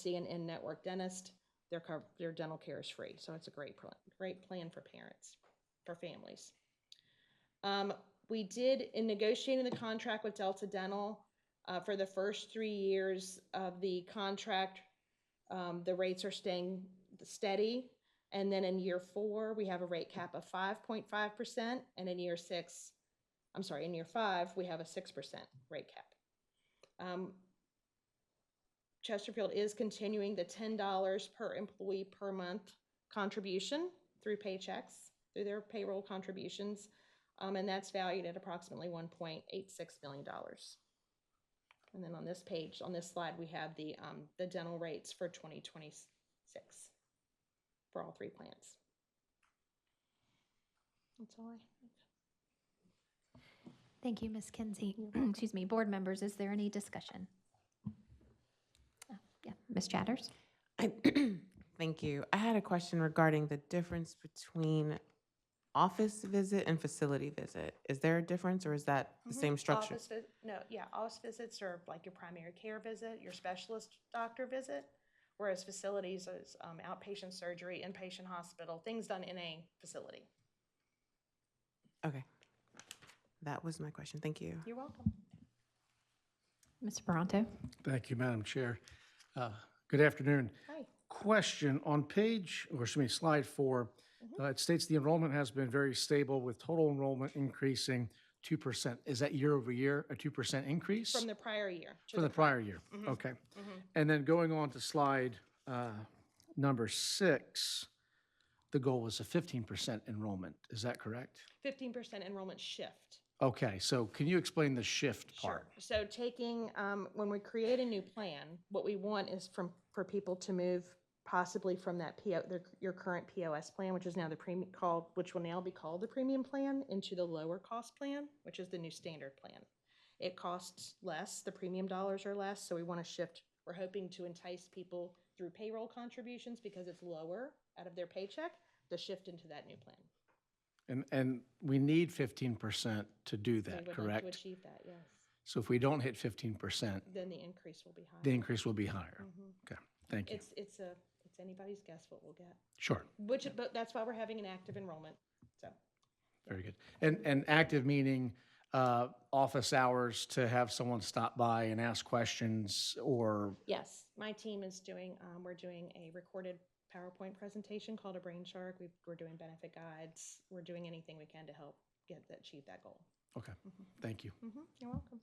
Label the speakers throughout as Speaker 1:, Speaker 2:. Speaker 1: see an in-network dentist, their cover, their dental care is free. So it's a great, pl- great plan for parents, for families. Um, we did, in negotiating the contract with Delta Dental, uh, for the first three years of the contract, um, the rates are staying steady. And then in year four, we have a rate cap of five point five percent, and in year six, I'm sorry, in year five, we have a six percent rate cap. Um, Chesterfield is continuing the ten dollars per employee per month contribution through paychecks, through their payroll contributions. Um, and that's valued at approximately one point eight six million dollars. And then on this page, on this slide, we have the, um, the dental rates for twenty twenty-six for all three plants. That's all I.
Speaker 2: Thank you, Ms. Kinsey. Excuse me, board members, is there any discussion? Oh, Yeah, Ms. Chatters?
Speaker 3: I, thank you. I had a question regarding the difference between office visit and facility visit. Is there a difference or is that the same structure?
Speaker 1: Mm-hmm. Office vis- No, yeah, office visits are like your primary care visit, your specialist doctor visit, whereas facilities is um, outpatient surgery, inpatient hospital, things done in a facility.
Speaker 3: Okay. That was my question. Thank you.
Speaker 1: You're welcome.
Speaker 2: Mr. Baronto?
Speaker 4: Thank you, Madam Chair. Uh, Good afternoon.
Speaker 1: Hi.
Speaker 4: Question, on page, or excuse me, slide four,
Speaker 1: Mm-hmm.
Speaker 4: uh, it states the enrollment has been very stable with total enrollment increasing 2%. Is that year over year, a 2% increase?
Speaker 1: From Mm-hmm. the prior year. to
Speaker 4: From the prior year? Okay. And then going on to slide uh, number six, the goal was a 15% enrollment. Is that correct?
Speaker 1: Fifteen percent enrollment shift.
Speaker 4: Okay, so can you explain the shift
Speaker 1: Sure.
Speaker 4: part?
Speaker 1: So taking, um, when we create a new plan, what we want is from, for people to move possibly from that PO, their, your current POS plan, which is now the premium called, which will now be called the premium plan, into the lower cost plan, which is the new standard plan. It costs less, the premium dollars are less, so we want to shift, we're hoping to entice people through payroll contributions because it's lower out of their paycheck, to shift into that new plan.
Speaker 4: And, and we need 15% to
Speaker 1: So
Speaker 4: do
Speaker 1: we would
Speaker 4: that,
Speaker 1: like To
Speaker 4: correct?
Speaker 1: achieve that, yes,
Speaker 4: So if we don't hit fifteen percent,
Speaker 1: then the increase will be higher.
Speaker 4: the increase will be
Speaker 2: Mm.
Speaker 4: higher.
Speaker 1: Mhm.
Speaker 4: Okay, thank you.
Speaker 1: It's, it's a, it's anybody's guess what we'll get,
Speaker 4: Sure,
Speaker 1: which, but that's why we're having an active enrollment, so.
Speaker 4: very good. And, and active meaning, uh, office hours to have someone stop by and ask questions or,
Speaker 1: Yes, my team is doing, um, we're doing a recorded PowerPoint presentation called a Brain Shark. We, we're doing benefit guides. We're doing anything we can to help get, that achieve that goal.
Speaker 4: okay, thank you.
Speaker 1: Mm-hmm, you're welcome.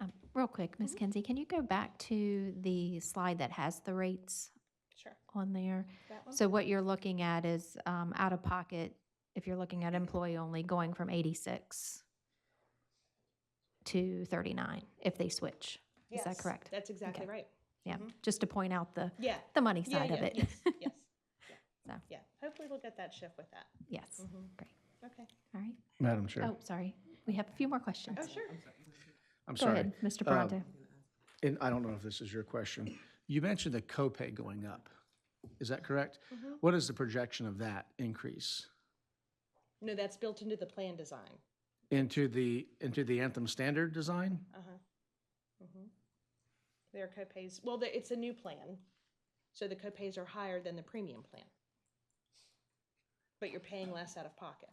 Speaker 2: Um, Real quick, Ms. Kinsey, can you go back to the slide that has the rates
Speaker 1: Sure.
Speaker 2: on there?
Speaker 1: That one?
Speaker 2: So what you're looking at is um, out of pocket, if you're looking at employee only, going from 86 to 39 if they switch. Is that
Speaker 1: Yes,
Speaker 2: correct?
Speaker 1: That's exactly
Speaker 2: Okay.
Speaker 1: right.
Speaker 2: Yeah,
Speaker 1: Mhm.
Speaker 2: just to point out the,
Speaker 1: Yeah.
Speaker 2: the money
Speaker 1: Yeah,
Speaker 2: side of
Speaker 1: yeah,
Speaker 2: it.
Speaker 1: Yes, yes, yeah.
Speaker 2: So.
Speaker 1: Yeah, hopefully we'll get that shift with that.
Speaker 2: Yes,
Speaker 1: Mhm.
Speaker 2: great.
Speaker 1: Okay.
Speaker 2: all right.
Speaker 4: Madam Chair,
Speaker 2: Oh, sorry, we have a few more questions.
Speaker 1: Oh, sure.
Speaker 4: I'm
Speaker 2: Go
Speaker 4: sorry.
Speaker 2: ahead, Mr.
Speaker 4: Uh,
Speaker 2: Pronto.
Speaker 4: And I don't know if this is your question. You mentioned the copay going up. Is that correct?
Speaker 2: Mm-hmm.
Speaker 4: What is the projection of that increase
Speaker 1: No, that's built into the plan design.
Speaker 4: into the, into the Anthem standard design?
Speaker 1: Uh-huh. Mhm. Their copays, well, the- it's a new plan, so the copays are higher than the premium plan. But you're paying less out of pocket.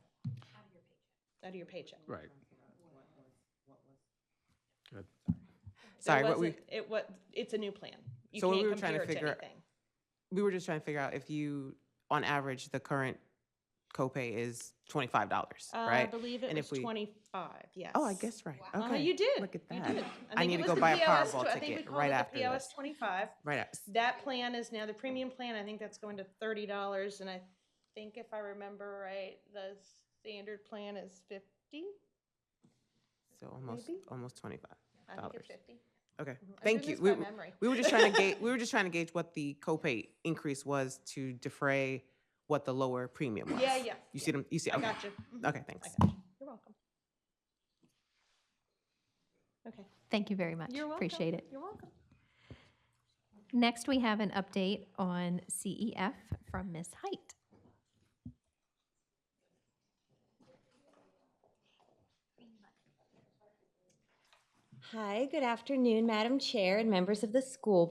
Speaker 1: Out of your paycheck.
Speaker 4: Right. Good.
Speaker 3: Sorry,
Speaker 1: It
Speaker 3: what we,
Speaker 1: wasn't, it was, it's a new plan. You
Speaker 3: So what
Speaker 1: can't
Speaker 3: we were trying to
Speaker 1: compare it
Speaker 3: figure-
Speaker 1: anything.
Speaker 3: we were just trying to figure out if you, on average, the current copay is twenty-five dollars,
Speaker 1: Uh, I
Speaker 3: right?
Speaker 1: believe it
Speaker 3: And
Speaker 1: was
Speaker 3: if we-
Speaker 1: twenty-five, yes.
Speaker 3: Oh, I guess right.
Speaker 1: Uh,
Speaker 3: Okay.
Speaker 1: you did.
Speaker 3: Look at
Speaker 1: You
Speaker 3: that.
Speaker 1: did.
Speaker 3: I
Speaker 1: think
Speaker 3: need
Speaker 1: it
Speaker 3: to
Speaker 1: was
Speaker 3: go
Speaker 1: the
Speaker 3: buy a
Speaker 1: POS
Speaker 3: Powerball
Speaker 1: tw- I think we
Speaker 3: ticket
Speaker 1: called
Speaker 3: right
Speaker 1: it the
Speaker 3: after
Speaker 1: POS
Speaker 3: this.
Speaker 1: twenty-five.
Speaker 3: Right. up.
Speaker 1: That plan is now the premium plan. I think that's going to thirty dollars, and I think if I remember right, the standard plan is fifty.
Speaker 3: So almost,
Speaker 1: Maybe? Mm-hmm.
Speaker 3: almost twenty-five
Speaker 1: I think
Speaker 3: dollars.
Speaker 1: it's fifty.
Speaker 3: Okay,
Speaker 1: I'm
Speaker 3: thank
Speaker 1: doing
Speaker 3: you.
Speaker 1: this
Speaker 3: We,
Speaker 1: by
Speaker 3: w-
Speaker 1: memory.
Speaker 3: we were just trying to gauge, we were just trying to gauge what the copay increase was to defray what the lower premium was.
Speaker 1: Yeah, yeah.
Speaker 3: You see them, you see,
Speaker 1: I
Speaker 3: okay,
Speaker 1: got you. Mhm.
Speaker 3: okay,
Speaker 1: I
Speaker 3: thanks.
Speaker 1: got you. You're welcome. Okay.
Speaker 2: Thank you very much.
Speaker 1: You're welcome.
Speaker 2: Appreciate it.
Speaker 1: You're welcome.
Speaker 2: Next, we have an update on CEF from Ms. Height.
Speaker 5: Hi, good afternoon, Madam Chair and members of the school